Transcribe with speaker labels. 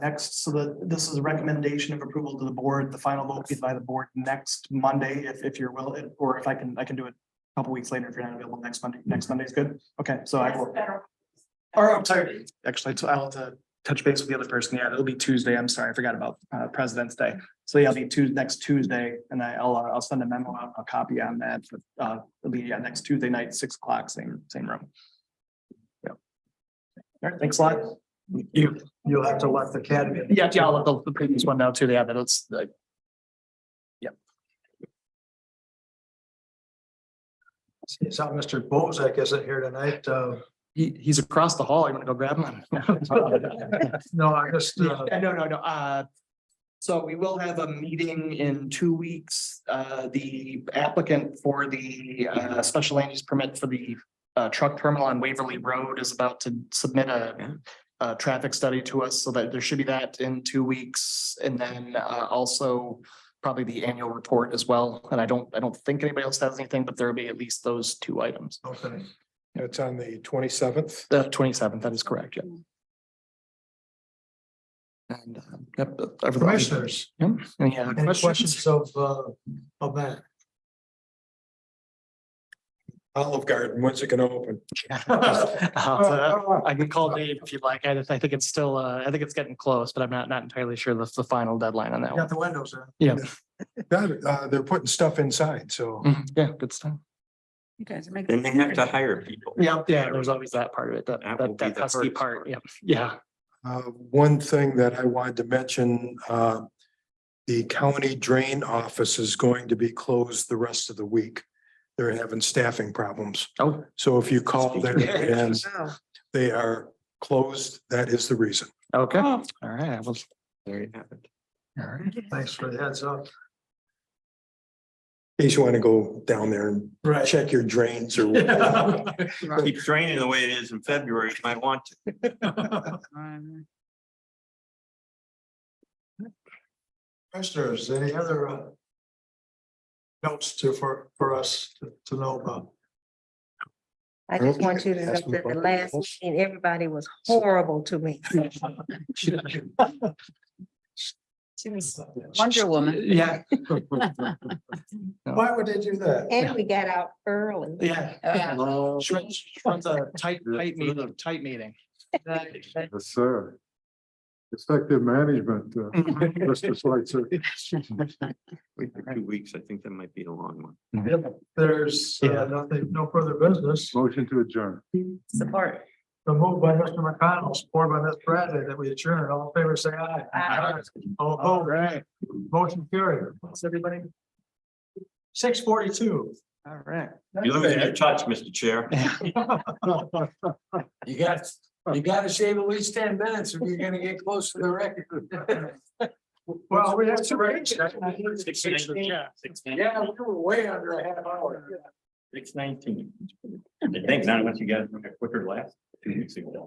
Speaker 1: Next, so that this is a recommendation of approval to the board. The final vote will be by the board next Monday, if, if you're will, or if I can, I can do it a couple weeks later if you're not available next Monday. Next Monday is good. Okay, so I will. Or I'm sorry, actually, so I'll have to touch base with the other person. Yeah, it'll be Tuesday. I'm sorry, I forgot about uh President's Day. So yeah, it'll be Tuesday, next Tuesday, and I- I'll, uh, I'll send a memo out, a copy on that. but, Uh, it'll be yeah, next Tuesday night, six o'clock, same, same room. Yeah. All right, thanks a lot.
Speaker 2: You, you'll have to let the academy.
Speaker 1: Yeah, yeah, I'll let the the previous one know too. Yeah, but it's like. Yep.
Speaker 2: See, It's how Mr. Bozak isn't here tonight. Uh,
Speaker 1: He, he's across the hall. You want to go grab him?
Speaker 2: no, I just, uh,
Speaker 1: Yeah, No, no, no, uh. So we will have a meeting in two weeks. Uh, the applicant for the uh special land use permit for the. Uh, truck terminal on Waverly Road is about to submit a. A traffic study to us so that there should be that in two weeks and then uh also. Probably the annual report as well. And I don't, I don't think anybody else has anything, but there'll be at least those two items.
Speaker 2: okay.
Speaker 3: It's on the twenty seventh.
Speaker 1: The twenty seventh, that is correct, yeah. And, um, yep. everything-
Speaker 2: Commissioners,
Speaker 1: Yep, any other
Speaker 2: any questions
Speaker 1: questions?
Speaker 2: of, uh, of that?
Speaker 3: Olive Garden, when's it gonna open?
Speaker 1: Uh, I can call Dave if you'd like. I, I think it's still, uh, I think it's getting close, but I'm not, not entirely sure the, the final deadline on that
Speaker 2: You
Speaker 1: one.
Speaker 2: Got the windows in.
Speaker 1: Yeah,
Speaker 3: That, uh, they're putting stuff inside, so.
Speaker 1: Mhm, yeah, good stuff.
Speaker 4: You guys are making.
Speaker 5: Then they have to hire people.
Speaker 1: Yeah, yeah, there's always that part of it, that,
Speaker 5: That will
Speaker 1: that,
Speaker 5: be
Speaker 1: that
Speaker 5: the
Speaker 1: pesky
Speaker 5: first
Speaker 1: part. Yeah, yeah.
Speaker 3: Uh, one thing that I wanted to mention, uh, the county drain office is going to be closed the rest of the week. They're having staffing problems.
Speaker 1: Oh,
Speaker 3: So if you call there and
Speaker 4: Oh,
Speaker 3: they are closed, that is the reason.
Speaker 1: okay. All
Speaker 4: Oh.
Speaker 1: right, I was,
Speaker 5: There you have it.
Speaker 1: all right.
Speaker 2: Thanks for the heads up.
Speaker 3: In case you want to go down there and
Speaker 2: Right.
Speaker 3: check your drains or.
Speaker 4: right.
Speaker 5: Keeps raining the way it is in February. You might want to.
Speaker 4: Um,
Speaker 2: Commissioners, any other, uh, notes to, for, for us to- to know about?
Speaker 6: I just
Speaker 3: Okay.
Speaker 6: want you to know
Speaker 3: Ask me
Speaker 6: that the
Speaker 3: about the
Speaker 6: last
Speaker 3: results.
Speaker 6: meeting, everybody was horrible to me.
Speaker 4: She was Wonder Woman.
Speaker 1: Yeah,
Speaker 2: Why would they do that?
Speaker 6: And we got out early.
Speaker 1: yeah.
Speaker 4: Yeah.
Speaker 1: Shreds- shreds a tight, tight meeting, tight meeting.
Speaker 4: Uh,
Speaker 7: Yes, sir. Effective management, uh, Mr. Schweitzer.
Speaker 5: Wait for Two weeks, I think that might be a long one.
Speaker 2: There's, uh,
Speaker 1: Yeah.
Speaker 2: nothing, no further business.
Speaker 7: Motion to adjourn.
Speaker 4: Support.
Speaker 2: The move by Mr. McConnell, supported by Ms. Bradley, that we adjourn. All in favor, say aye.
Speaker 4: Aye.
Speaker 2: All
Speaker 1: All
Speaker 2: opposed,
Speaker 1: right,
Speaker 2: motion carried. What's everybody? Six forty-two.
Speaker 1: all right.
Speaker 5: You're losing your touch, Mr. Chair.
Speaker 2: You got, you gotta shave at least ten minutes if you're gonna get close to the record. Well, we have to range. Yeah, we were way under a half hour.
Speaker 5: Six nineteen. I think not unless you guys got quicker last two weeks ago.